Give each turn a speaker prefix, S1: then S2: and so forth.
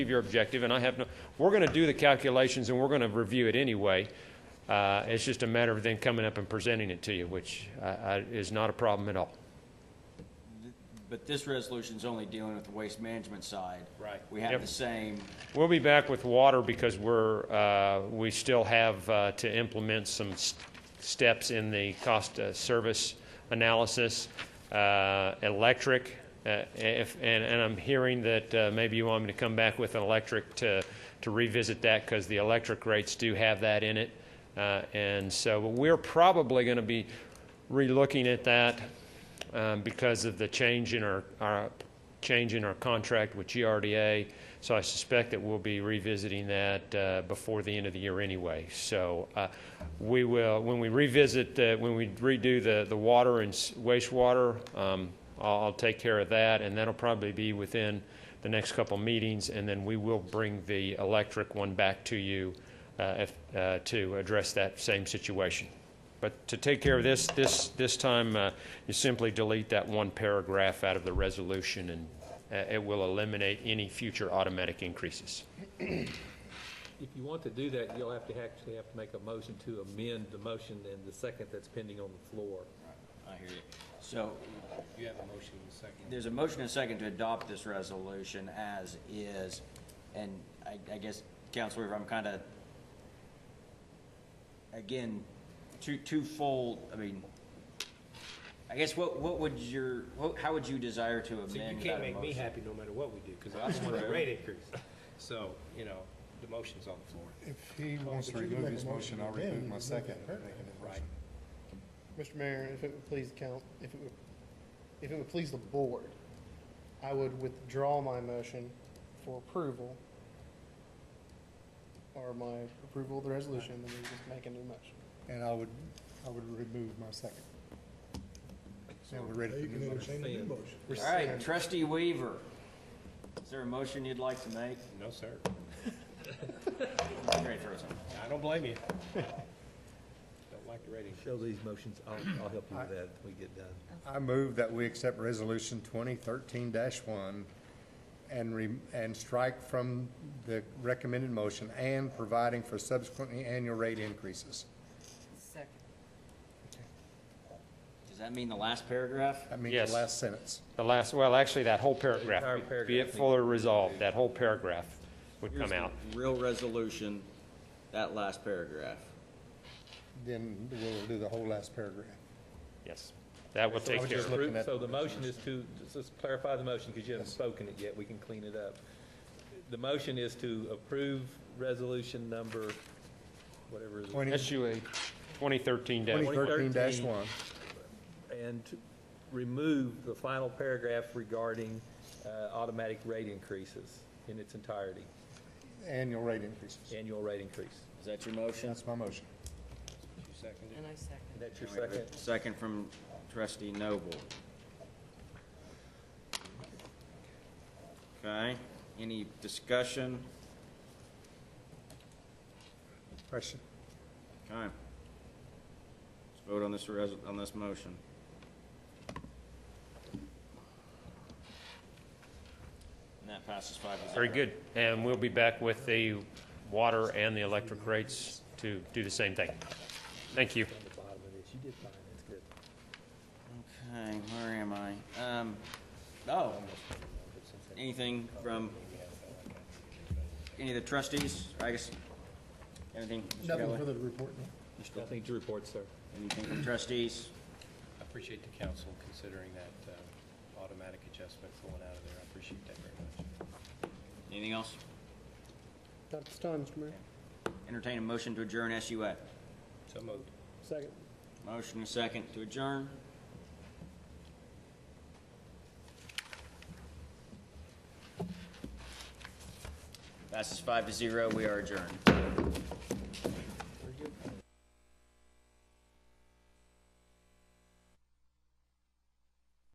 S1: achieve your objective, and I have no, we're going to do the calculations and we're going to review it anyway. Uh, It's just a matter of then coming up and presenting it to you, which I- I- is not a problem at all.
S2: But this resolution's only dealing with the waste management side.
S1: Right.
S2: We have
S1: Yep.
S2: the same,
S1: We'll be back with water because we're, uh, we still have uh, to implement some s- steps in the cost uh, service analysis. Uh, Electric, uh, if, and, and I'm hearing that uh, maybe you want me to come back with an electric to, to revisit that because the electric rates do have that in it. Uh, And so we're probably going to be relooking at that um, because of the change in our, our, change in our contract with GRDA. So I suspect that we'll be revisiting that uh, before the end of the year anyway. So uh, we will, when we revisit, the- when we redo the, the water and s- wastewater, um, I'll, I'll take care of that, and that'll probably be within the next couple meetings, and then we will bring the electric one back to you uh, if, uh, to address that same situation. But to take care of this, this, this time, uh, you simply delete that one paragraph out of the resolution, and uh, it will eliminate any future automatic increases.
S3: If you want to do that, you'll have to actually have to make a motion to amend the motion and the second that's pending on the floor.
S2: I hear you. So
S4: You have a motion in a second.
S2: there's a motion and a second to adopt this resolution as is. And I, I guess, Counselor Weaver, I'm kind of, again, two, twofold, I mean, I guess what, what would your, what- how would you desire to amend
S4: So
S2: that
S4: you
S2: motion?
S4: can't make me happy no matter what we do, because I just want a rate increase. So, you know, the motion's on the floor.
S5: If he wants to
S6: but you can
S5: remove
S6: make
S5: his
S6: a
S5: motion,
S6: motion to
S5: I'll remove
S6: amend,
S5: my
S6: you can make
S5: second.
S6: it
S5: and
S6: perfect.
S5: make an
S4: Right.
S5: amendment.
S6: Mr. Mayor, if it would please the count, if it would, if it would please the board, I would withdraw my motion for approval or my approval of the resolution, and then we just make a new motion.
S5: And I would, I would remove my second. Now we're ready for new motion.
S6: We're
S2: All right,
S6: saying-
S2: trustee Weaver, is there a motion you'd like to make?
S4: No, sir.
S2: Great, Rosen.
S4: I don't blame you. Don't like the rate increase.
S3: Show these motions, I'll, I'll help you with that when we get done.
S5: I move that we accept resolution twenty thirteen one and re, and strike from the recommended motion and providing for subsequently annual rate increases.
S7: Second.
S2: Does that mean the last paragraph?
S5: That means
S1: Yes.
S5: the last sentence.
S1: The last, well, actually, that whole paragraph,
S3: Entire
S1: be it
S3: paragraph.
S1: fully resolved, that whole paragraph would come out.
S2: Real resolution, that last paragraph.
S5: Then we'll do the whole last paragraph.
S1: Yes, that will take
S5: was
S1: care
S5: just
S1: of it.
S5: looking at
S3: So the
S5: the
S3: motion is to, just- just clarify the motion, because you haven't spoken it yet, we can clean it up. The motion is to approve resolution number, whatever, it is,
S5: Twenty,
S1: SUA 2013
S5: twenty
S1: dash,
S5: thirteen
S3: 2013.
S5: one.
S3: and to remove the final paragraph regarding uh, automatic rate increases in its entirety,
S5: Annual rate increases.
S3: annual rate increase.
S2: Is that your motion?
S5: That's my motion.
S4: You seconded
S7: And I second.
S3: And that's your second?
S2: Second from trustee Noble. Okay, any discussion?
S5: Question.
S2: Okay. Let's vote on this res, on this motion. And that passes five to zero.
S1: very good. And we'll be back with the water and the electric rates to do the same thing. Thank you.
S3: the bottom of this. You did fine, that's good.
S2: Okay, where am I? Um, oh, anything from any of the trustees? I guess, anything? Mr.
S6: Nothing
S2: Kelly?
S6: further to report now.
S3: Nothing to report, sir.
S2: Anything from trustees?
S4: I appreciate the council considering that uh, automatic adjustment going out of there. I appreciate that very much.
S2: Anything else?
S6: Not at this time, Mr. Mayor.
S2: Entertain a motion to adjourn SUA.
S4: So moved.
S6: Second.
S2: Motion and second to adjourn. Passes five to zero. We are adjourned.